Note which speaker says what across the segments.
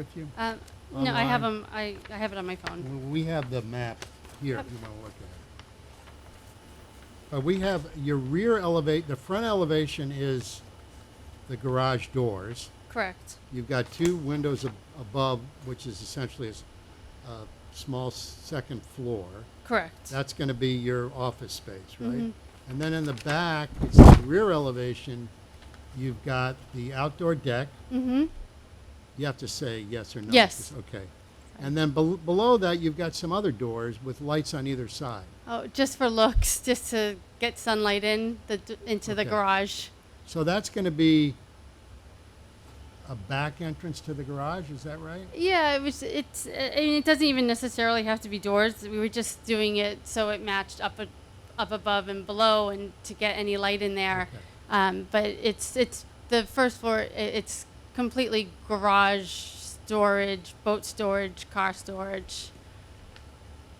Speaker 1: with you?
Speaker 2: Um, no, I have
Speaker 1: Online.
Speaker 2: them, I, I have it on my phone.
Speaker 1: Well, We have the map here, if you want to look at it. Uh, we have your rear elevate, the front elevation is the garage doors.
Speaker 2: Correct,
Speaker 1: You've got two windows ab- above, which is essentially a s- a small s- second floor.
Speaker 2: correct.
Speaker 1: That's going to be your office space, right?
Speaker 2: Mhm.
Speaker 1: And then in the back, it's the rear elevation, you've got the outdoor deck.
Speaker 2: Mm-hmm,
Speaker 1: You have to say yes or no.
Speaker 2: Yes.
Speaker 1: Okay. And then bel- below that, you've got some other doors with lights on either side.
Speaker 2: oh, just for looks, just to get sunlight in, the, d- into the
Speaker 1: Okay.
Speaker 2: garage.
Speaker 1: So that's going to be a back entrance to the garage, is that right?
Speaker 2: Yeah, it was, it's, uh, I mean, it doesn't even necessarily have to be doors, we were just doing it so it matched up, a- up above and below and to get any light in there.
Speaker 1: Okay.
Speaker 2: Um, but it's, it's, the first floor, i it's completely garage storage, boat storage, car storage.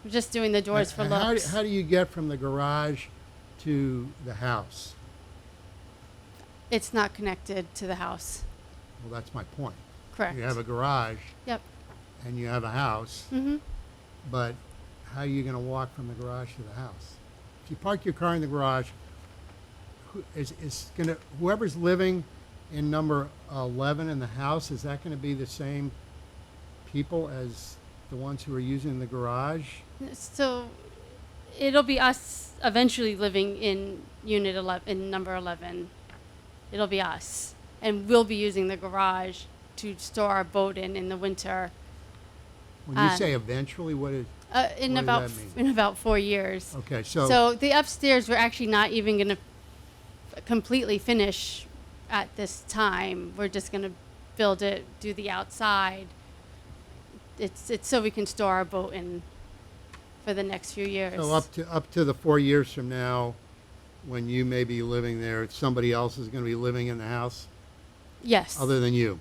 Speaker 2: We're just doing the doors for
Speaker 1: And how do-
Speaker 2: looks.
Speaker 1: How do you get from the garage to the house?
Speaker 2: It's not connected to the house.
Speaker 1: Well, that's my point.
Speaker 2: Correct.
Speaker 1: You have a garage
Speaker 2: Yep.
Speaker 1: and you have a house,
Speaker 2: Mm-hmm.
Speaker 1: but how are you going to walk from the garage to the house? If you park your car in the garage, who is, is going to, whoever's living in number 11 in the house, is that going to be the same people as the ones who are using the garage?
Speaker 2: So it'll be us eventually living in unit 11, in number 11. It'll be us. And we'll be using the garage to store our boat in in the winter.
Speaker 1: When you
Speaker 2: Um,
Speaker 1: say eventually, what is,
Speaker 2: Uh, in
Speaker 1: What does
Speaker 2: about
Speaker 1: that
Speaker 2: f-
Speaker 1: mean?
Speaker 2: in about four years.
Speaker 1: okay, so.
Speaker 2: so the upstairs we're actually not even going to completely finish at this time. We're just going to build it, do the outside. It's it's so we can store our boat in for the next few years.
Speaker 1: So up to, up to the four years from now, when you may be living there, somebody else is gonna be living in the house
Speaker 2: yes,
Speaker 1: other than you?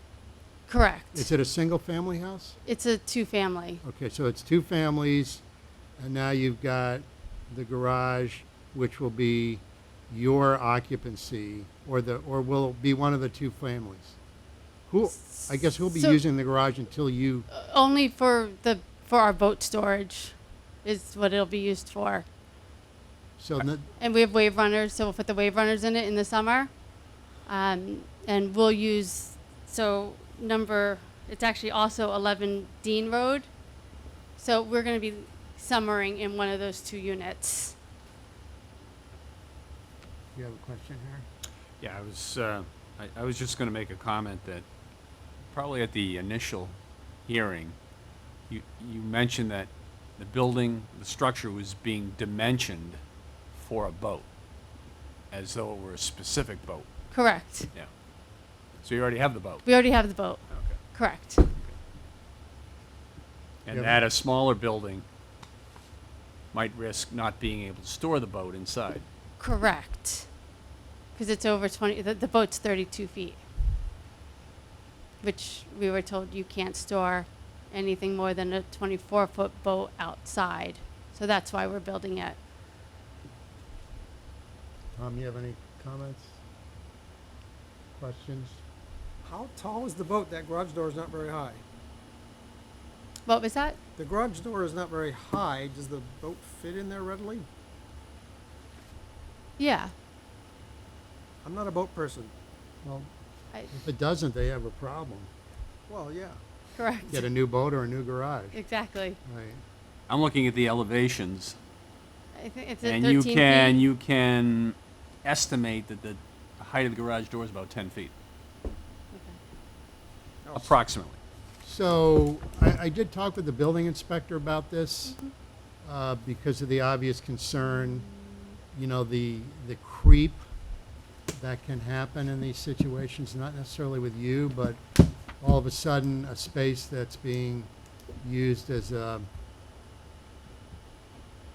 Speaker 2: correct.
Speaker 1: Is it a single-family house?
Speaker 2: It's a two-family.
Speaker 1: Okay, so it's two families, and now you've got the garage, which will be your occupancy, or the, or will be one of the two families. Who, I guess who'll be
Speaker 2: So-
Speaker 1: using the garage until you,
Speaker 2: Uh, Only for the for our boat storage is what it'll be used for.
Speaker 1: so the,
Speaker 2: And we have wave runners, so we'll put the wave runners in it in the summer. Um, and we'll use, so number, it's actually also 11 Dean Road. So we're going to be summering in one of those two units.
Speaker 1: you have a question here?
Speaker 3: Yeah, I was, uh, I, I was just gonna make a comment that probably at the initial hearing, you, you mentioned that the building, the structure was being dimensioned for a boat, as though it were a specific boat,
Speaker 2: Correct.
Speaker 3: yeah. So you already have the boat.
Speaker 2: We already have the boat.
Speaker 3: Okay.
Speaker 2: Correct.
Speaker 1: Yeah,
Speaker 3: And
Speaker 1: but-
Speaker 3: that a smaller building might risk not being able to store the boat inside.
Speaker 2: Correct. Because it's over 20, the, the boat's 32 feet, which we were told you can't store anything more than a 24 foot boat outside. So that's why we're building it.
Speaker 1: Tom, you have any comments? Questions?
Speaker 4: How tall is the boat? That garage door is not very high.
Speaker 2: What was that?
Speaker 4: The garage door is not very high. Does the boat fit in there readily?
Speaker 2: Yeah.
Speaker 4: I'm not a boat person.
Speaker 1: Well,
Speaker 2: I,
Speaker 1: if it doesn't, they have a problem.
Speaker 4: Well, yeah.
Speaker 2: correct.
Speaker 1: Get a new boat or a new garage.
Speaker 2: Exactly.
Speaker 1: Right.
Speaker 3: I'm looking at the elevations
Speaker 2: I think it's at
Speaker 3: And
Speaker 2: 13
Speaker 3: you can,
Speaker 2: feet.
Speaker 3: you can estimate that the height of the garage door is about ten feet,
Speaker 4: Oh,
Speaker 3: approximately.
Speaker 1: So I, I did talk with the building inspector about this uh, because of the obvious concern, you know, the, the creep that can happen in these situations, not necessarily with you, but all of a sudden, a space that's being used as a,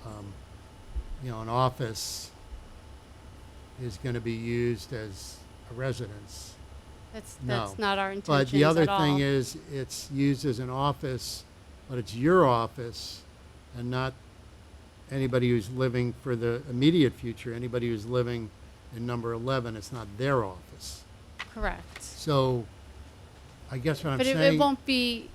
Speaker 1: um, you know, an office is going to be used as a residence.
Speaker 2: That's,
Speaker 1: No.
Speaker 2: that's not our intention.
Speaker 1: But the other
Speaker 2: at all.
Speaker 1: thing is, it's used as an office, but it's your office and not anybody who's living for the immediate future, anybody who's living in number 11, it's not their office.
Speaker 2: Correct.
Speaker 1: So I guess what I'm
Speaker 2: But it,
Speaker 1: saying.
Speaker 2: it won't be